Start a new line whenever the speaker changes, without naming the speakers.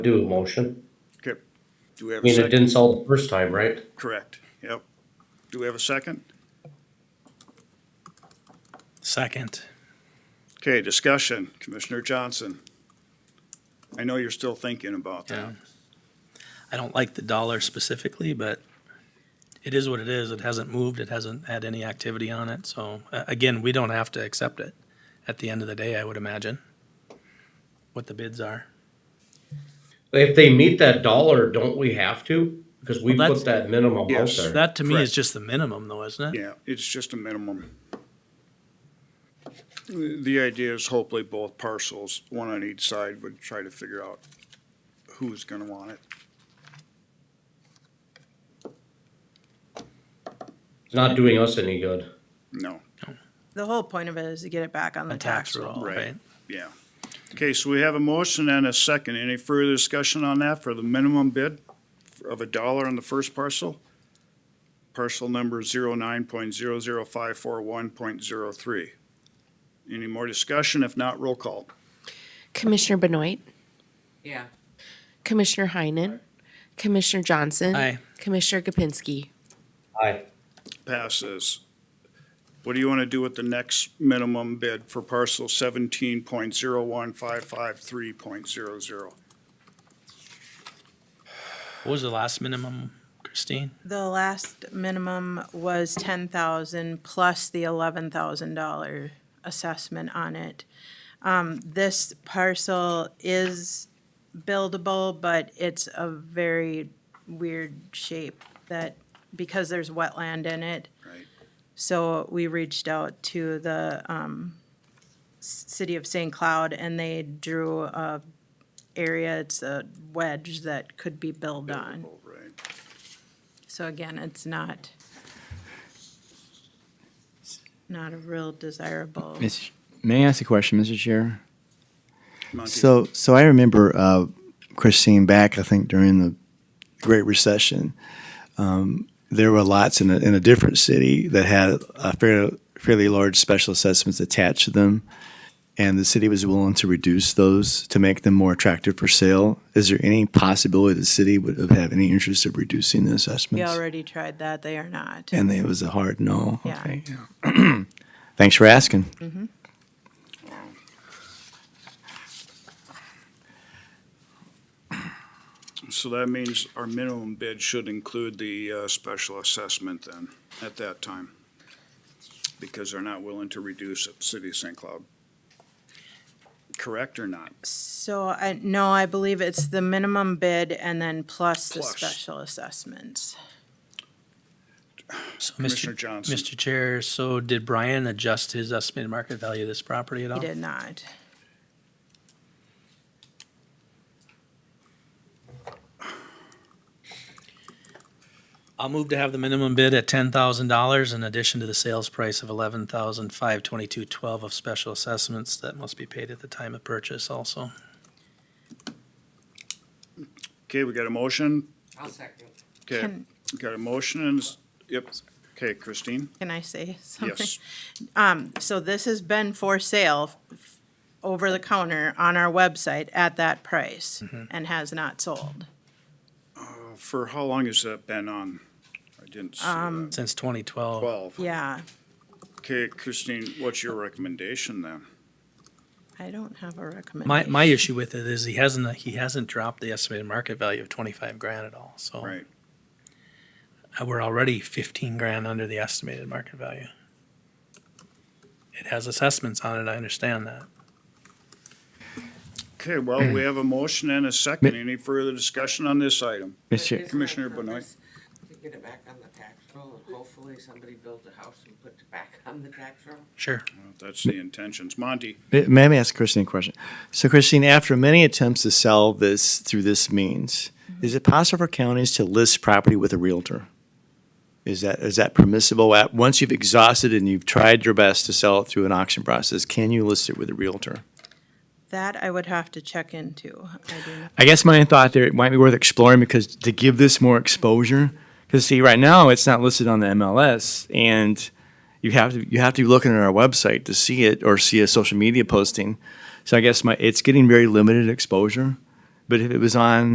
do a motion.
Okay, do we
I
have a
mean, it
second?
didn't sell the first time, right?
Correct, yep. Do we have a second?
Second.
Okay, discussion, Commissioner Johnson. I know you're still thinking about that.
Yeah. I don't like the dollar specifically, but it is what it is. It hasn't moved. It hasn't had any activity on it. So uh, again, we don't have to accept it at the end of the day, I would imagine, what the bids are.
If they meet that dollar, don't we have to? Because we
Well,
put
that's-
that minimum out
Yes.
there.
That to me
Correct.
is just the minimum though, isn't it?
Yeah, it's just a minimum. The idea is hopefully both parcels, one on each side, would try to figure out who's gonna want it.
It's not doing us any good.
No,
The whole point of it is to get it back on the
A tax roll,
Right.
right?
yeah. Okay, so we have a motion and a second. Any further discussion on that for the minimum bid of a dollar on the first parcel? Parcel number zero nine point zero zero five four one point zero three. Any more discussion? If not, roll call.
Commissioner Benoit,
Yeah.
Commissioner Heinen, Commissioner Johnson.
Aye.
Commissioner Gopinski.
Aye.
passes. What do you want to do with the next minimum bid for parcel seventeen point zero one five five three point zero zero?
What was the last minimum, Christine?
The last minimum was ten thousand plus the eleven thousand dollar assessment on it. Um, this parcel is buildable, but it's a very weird shape that, because there's wetland in it.
Right.
So we reached out to the, um, s- city of St. Cloud and they drew a area, it's a wedge that could be built on.
Oh, right.
So again, it's not, not a real desirable.
Miss, may I ask a question, Mr. Chair?
Monty,
So, so I remember uh, Christine back. I think during the Great Recession, um, there were lots in a, in a different city that had a fair, fairly large special assessments attached to them, and the city was willing to reduce those to make them more attractive for sale. Is there any possibility the city would have, have any interest of reducing the
We
assessments?
already tried that, they are not.
and it was a hard no.
Yeah.
Okay. yeah. Thanks for asking.
So that means our minimum bid should include the, uh, special assessment then, at that time. Because they're not willing to reduce it, City of St. Cloud. Correct or not?
So I, no, I believe it's the minimum bid and then plus the
Plus.
special assessments.
So, Mr.
Commissioner Johnson.
Mr. Chair, so did Brian adjust his estimated market value of this property at all?
He did not.
I'll move to have the minimum bid at ten thousand dollars in addition to the sales price of eleven thousand five twenty-two twelve of special assessments that must be paid at the time of purchase also.
Okay, we got a motion?
I'll second.
Okay,
Can-
we got a motion and, s- yep. Okay, Christine?
Can I say something?
Yes.
So this has been for sale f- over the counter on our website at that price
Mm-hmm.
and has not sold.
For how long has that been on? I didn't see that.
Since twenty twelve,
Twelve.
Um, Yeah,
Okay, Christine, what's your recommendation then?
I don't have a recommendation.
my, my issue with it is he hasn't, he hasn't dropped the estimated market value of twenty-five grand at all, so.
Right.
uh, We're already fifteen grand under the estimated market value. It has assessments on it, I understand that.
Okay, well, we have a motion and a second. Any further discussion on this item?
Mr. Chair-
Commissioner
Isn't that
Benoit.
purpose To get it back on the tax roll, and hopefully somebody builds a house and puts it back on the tax roll.
Sure.
That's the intentions. Monty,
May- May I ask Christine a question? So, Christine, after many attempts to sell this through this means, is it possible for counties to list property with a realtor? Is that is that permissible? At once you've exhausted and you've tried your best to sell it through an auction process, can you list it with a realtor?
That I would have to check into. I do not
I guess my thought there it might be worth exploring because to give this more exposure, because see, right now it's not listed on the MLS, and you have to you have to be looking at our website to see it or see a social media posting. So I guess my it's getting very limited exposure But if it was on